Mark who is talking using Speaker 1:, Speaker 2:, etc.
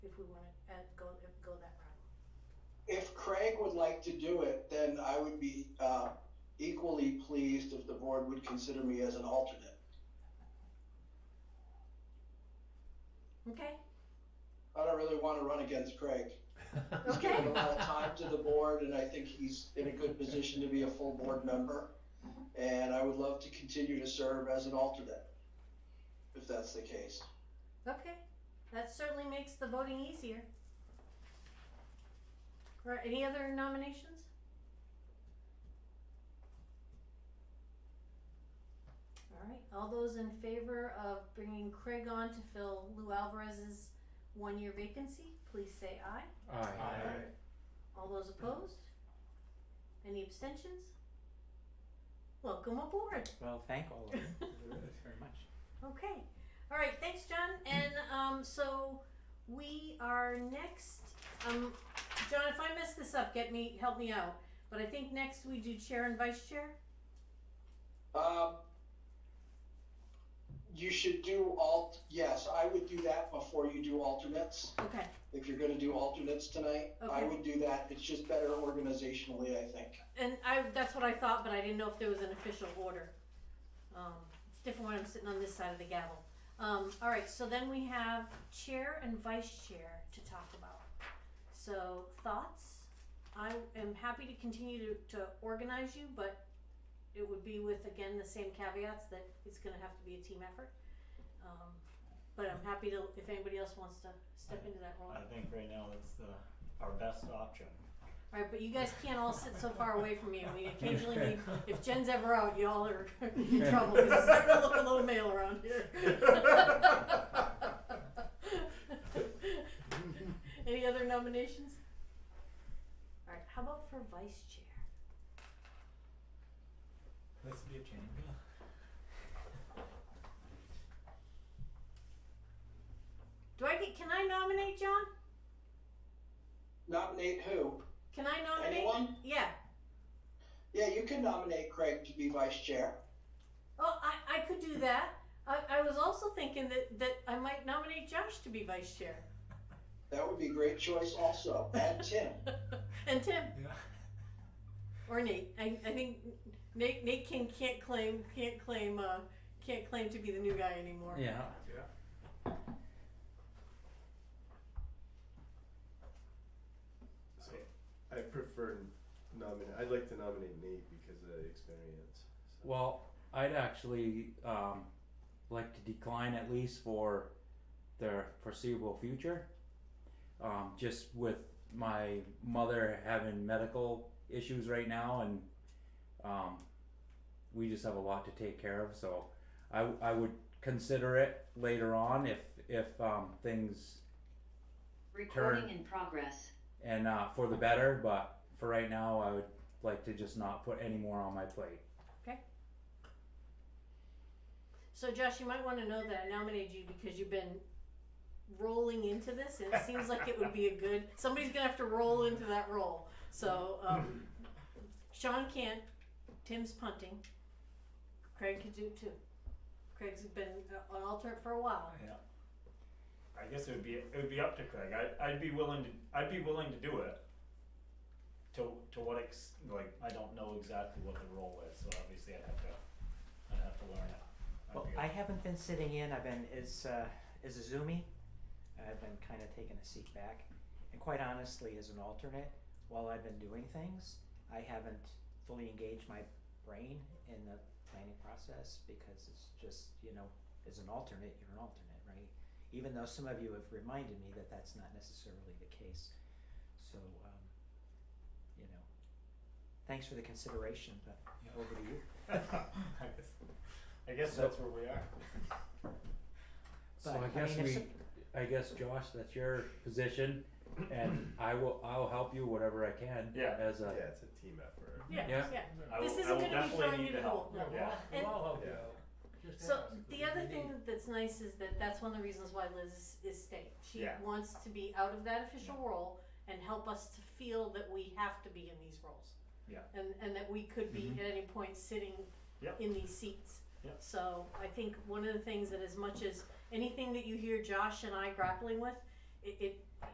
Speaker 1: uh,
Speaker 2: like to do it, then I would be uh, equally pleased if the board would consider me as an alternate.
Speaker 1: Okay,
Speaker 2: I don't really want to run against Craig. He's
Speaker 1: okay,
Speaker 2: given a lot of time to the board, and I think he's in a good position to be a full board member. And I would love to continue to serve as an alternate, if that's the case.
Speaker 1: okay. That certainly makes the voting easier. Right, any other nominations? All right, all those in favor of bringing Craig on to fill Lou Alvarez's one-year vacancy, please say aye.
Speaker 3: Aye.
Speaker 1: All those opposed? Any abstentions? Welcome aboard.
Speaker 3: Well, thank all of you very much.
Speaker 1: Okay. All right. Thanks, John. And um, so we are next. Um, John, if I mess this up, get me help me out. But I think next we do chair and vice chair.
Speaker 2: Um, you should do alt, yes, I would do that before you do alternates.
Speaker 1: Okay.
Speaker 2: If you're gonna do alternates tonight, I
Speaker 1: Okay.
Speaker 2: would do that. It's just better organizationally, I think.
Speaker 1: And I that's what I thought, but I didn't know if there was an official order. Um, it's different when I'm sitting on this side of the gavel. Um, all right. So then we have chair and vice chair to talk about. So thoughts. I am happy to continue to, to organize you, but it would be with again the same caveats that it's going to have to be a team effort. Um, but I'm happy to if anybody else wants to step into that role.
Speaker 4: I think right now that's the, our best option.
Speaker 1: All right, but you guys can't all sit so far away from me. We occasionally need, if Jen's ever out, y'all are in trouble. 'cause It's starting to look a little male around here. Any other nominations? All right, how about for vice chair?
Speaker 4: This would be a change.
Speaker 1: Do I get? Can I nominate John?
Speaker 2: Nominate who?
Speaker 1: Can I nominate?
Speaker 2: Anyone?
Speaker 1: Yeah.
Speaker 2: Yeah, you can nominate Craig to be vice chair.
Speaker 1: Oh, I, I could do that. I, I was also thinking that, that I might nominate Josh to be vice chair.
Speaker 2: That would be a great choice also. And Tim.
Speaker 1: and Tim.
Speaker 4: Yeah.
Speaker 1: Or Nate. I, I think Nate Nate King can't claim can't claim uh, can't claim to be the new guy anymore.
Speaker 3: Yeah.
Speaker 5: So I prefer nominate. I'd like to nominate Nate because of the experience. So.
Speaker 3: Well, I'd actually um, like to decline at least for the foreseeable future. Um, just with my mother having medical issues right now, and um, we just have a lot to take care of. So I, I would consider it later on if if um, things
Speaker 6: Recording
Speaker 3: Turn.
Speaker 6: in progress.
Speaker 3: and uh, for the better. But for right now, I would like to just not put any more on my plate.
Speaker 1: So Josh, you might want to know that I nominated you because you've been rolling into this, and it seems like it would be a good. Somebody's gonna have to roll into that role. So um, Sean can't. Tim's punting. Craig could do too. Craig's been uh, an alternate for a while.
Speaker 4: I guess it would be, it would be up to Craig. I, I'd be willing to, I'd be willing to do it. To, to what ex, like, I don't know exactly what the role is, so obviously I'd have to, I'd have to learn it. I'd
Speaker 7: Well,
Speaker 4: be-
Speaker 7: I haven't been sitting in. I've been as uh, as a zoomie. I've been kind of taking a seat back, and quite honestly, as an alternate, while I've been doing things, I haven't fully engaged my brain in the planning process because it's just you know, as an alternate, you're an alternate, right? Even though some of you have reminded me that that's not necessarily the case, so um, you know, thanks for the consideration, but
Speaker 4: Yeah.
Speaker 7: over to you.
Speaker 4: I guess, I guess
Speaker 3: So-
Speaker 4: that's where we are.
Speaker 3: So
Speaker 7: But,
Speaker 3: I
Speaker 7: I
Speaker 3: guess
Speaker 7: mean, if
Speaker 3: we,
Speaker 7: some-
Speaker 3: I guess Josh, that's your position, and I will, I'll help you whatever I can.
Speaker 4: Yeah.
Speaker 3: As a,
Speaker 5: yeah, it's a team effort.
Speaker 1: Yeah.
Speaker 3: Yeah.
Speaker 1: yeah.
Speaker 4: I will,
Speaker 1: This isn't
Speaker 4: I will
Speaker 1: gonna be throwing
Speaker 4: definitely
Speaker 1: you
Speaker 4: need
Speaker 1: to
Speaker 4: the help.
Speaker 1: the
Speaker 4: Yeah.
Speaker 1: wall.
Speaker 8: We'll all help you
Speaker 5: Yeah.
Speaker 8: out. Just
Speaker 1: So
Speaker 8: ask.
Speaker 1: the other thing that's nice is that that's one of the reasons why Liz is- is staying. She
Speaker 4: Yeah.
Speaker 1: wants to be out of that official role and help us to feel that we have to be in these roles.
Speaker 4: Yeah. Mm-hmm.
Speaker 1: And and that we could be at any point sitting
Speaker 4: Yep.
Speaker 1: in these seats.
Speaker 4: Yep.
Speaker 1: So I think one of the things that as much as anything that you hear Josh and I grappling with, it, it